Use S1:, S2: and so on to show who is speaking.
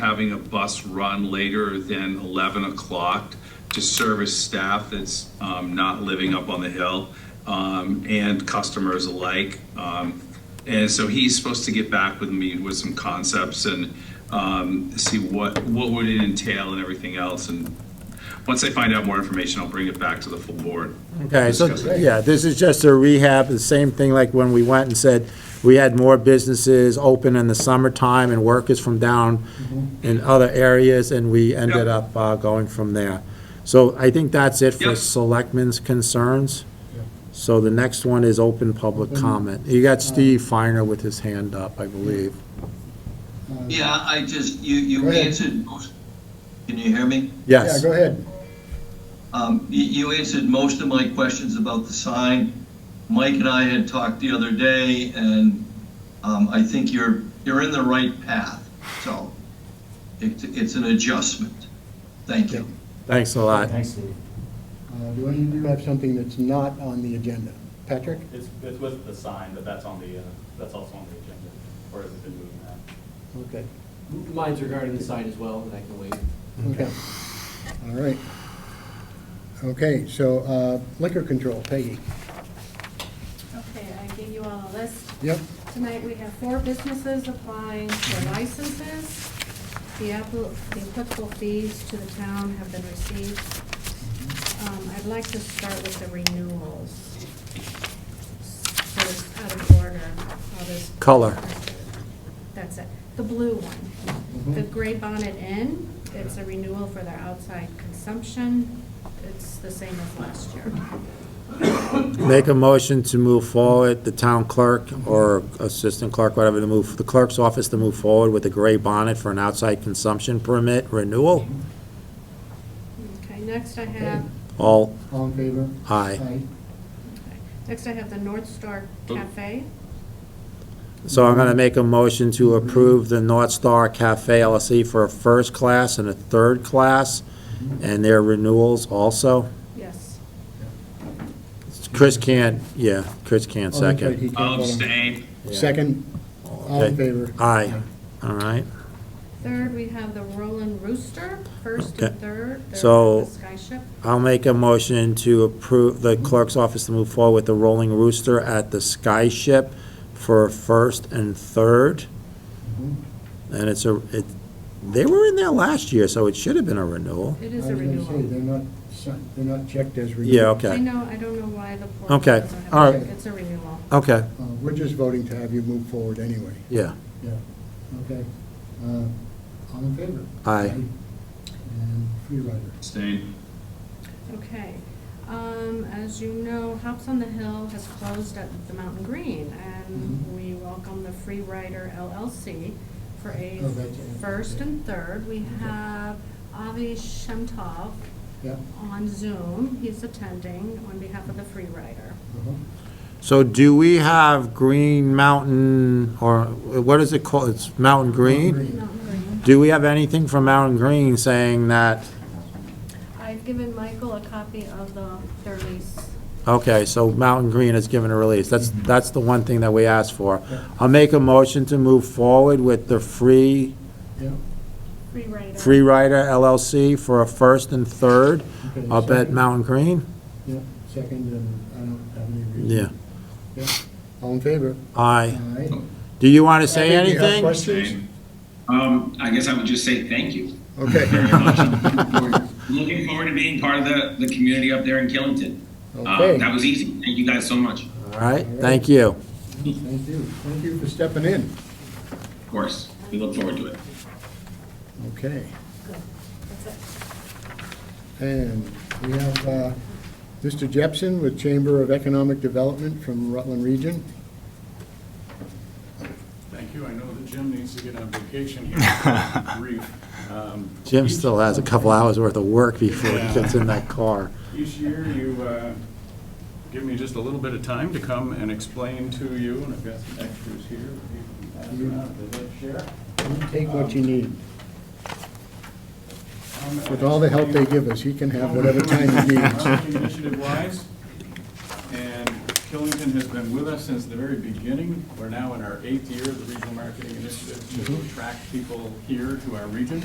S1: having a bus run later than 11 o'clock to service staff that's um, not living up on the hill um, and customers alike. Um, And so he's supposed to get back with me with some concepts and um, see what, what would it entail and everything else. And once I find out more information, I'll bring it back to the full board.
S2: Okay, so,
S1: Discuss it.
S2: yeah, this is just a rehab, the same thing like when we went and said, we had more businesses open in the summertime and workers from down in other areas, and we ended
S1: Yeah.
S2: up uh, going from there. So I think that's it for
S1: Yeah.
S2: selectmen's concerns. So the next one is open public comment. You got Steve Finer with his hand up, I believe.
S3: Yeah, I just, you,
S4: Go
S3: you
S4: ahead.
S3: answered most, can you hear me?
S4: Yeah,
S2: Yes,
S4: go ahead.
S3: Um, you, you answered most of my questions about the sign. Mike and I had talked the other day, and, um, I think you're, you're in the right path, so it, it's an adjustment. Thank you.
S2: thanks a lot.
S5: Thanks, Steve.
S4: Uh, Do any of you have something that's not on the agenda? Patrick?
S5: It's, it's with the sign, but that's on the, uh, that's also on the agenda, or has it been moving that?
S4: Okay,
S6: Mine's regarding the sign as well, and I can wait.
S4: okay. All right. Okay, so uh, liquor control, Peggy.
S7: Okay, I gave you all a list.
S4: Yep,
S7: Tonight, we have four businesses applying for licenses. The appli- the applicable fees to the town have been received. Um, I'd like to start with the renewals. So it's out of order, I'll just-
S2: Color.
S7: That's it, the blue one. The Gray Bonnet Inn, it's a renewal for their outside consumption. It's the same as last year.
S2: Make a motion to move forward, the town clerk or assistant clerk, whatever, to move, the clerk's office to move forward with a gray bonnet for an outside consumption permit renewal.
S7: Okay, next I have
S2: All
S4: all in favor? Oh,
S2: aye.
S7: Okay. Next, I have the North Star Cafe.
S2: So I'm going to make a motion to approve the North Star Cafe LLC for a first class and a third class, and their renewals also.
S7: Yes.
S2: Chris can't, yeah, Chris can't
S4: Oh, that's right,
S2: second.
S4: he can't
S1: I'll
S8: Um,
S4: vote on-
S1: abstain.
S4: Second, all in
S2: Okay.
S4: favor?
S2: Aye, all right.
S7: Third, we have the Roland Rooster, first
S2: Okay.
S7: and third. They're
S2: So-
S7: The Skyship.
S2: I'll make a motion to approve the clerk's office to move forward with the Rolling Rooster at the Sky Ship for first and third. And it's a, it, they were in there last year, so it should have been a renewal.
S7: It
S4: I was
S7: is a
S4: gonna say,
S7: renewal.
S4: They're not, si- they're not checked as renewed.
S2: Yeah,
S7: I
S2: okay,
S7: know, I don't know why the fourth.
S2: Okay,
S7: doesn't have
S2: all
S7: it.
S4: right.
S7: It's a renewal.
S2: okay,
S4: Uh, We're just voting to have you move forward anyway.
S2: yeah.
S4: Yeah, okay. Uh, All in favor?
S2: Aye.
S4: And free rider.
S1: Abstain.
S7: Okay. Um, As you know, Hops on the Hill has closed at the Mountain Green, and
S4: Mhm.
S7: we welcome the Free Rider LLC for a
S4: Oh, that's it.
S7: first and third. We have Avi Shemtov
S4: Yeah.
S7: on Zoom. He's attending on behalf of the Free Rider.
S4: uh-huh.
S2: So do we have Green Mountain, or what is it called? It's Mountain Green?
S7: Mountain Green.
S2: Do we have anything from Mountain Green saying that,
S7: I've given Michael a copy of the, their lease.
S2: Okay, so Mountain Green has given a release. That's, that's the one thing that we asked for. I'll make a motion to move forward with the Free,
S4: Yeah.
S7: Free Rider.
S2: Free Rider LLC for a first and third
S4: Okay,
S2: up at
S4: second.
S2: Mountain Green.
S4: Yeah, second, and I don't have any
S2: Yeah,
S4: reason. Yeah. All in favor?
S2: aye.
S4: Aye.
S2: Do you want to say
S4: Abby, do you have
S2: anything?
S4: questions?
S8: Um, I guess I would just say thank you.
S4: Okay.
S8: Looking forward to being part of the, the community up there in Killington.
S4: Okay,
S8: Um, that was easy. Thank you guys so much, of
S2: All right, thank you.
S4: thank you. Thank you for stepping in.
S8: course. We look forward to it.
S4: Okay,
S7: That's it.
S4: and we have uh, Mr. Jepson with Chamber of Economic Development from Rutland Region.
S9: Thank you. I know that Jim needs to get on vacation here. Brief. Um,
S2: Jim still has a couple hours worth of work before he gets in that car.
S9: Each year, you uh, give me just a little bit of time to come and explain to you, and I've got some extras here. that you can pass around if they'd like to share.
S4: Take what you need.
S9: Um,
S4: With all the help they give us, he can have whatever time he needs.
S9: Housing Initiative-wise, and Killington has been with us since the very beginning. We're now in our eighth year of the regional marketing initiative to attract people here to our region.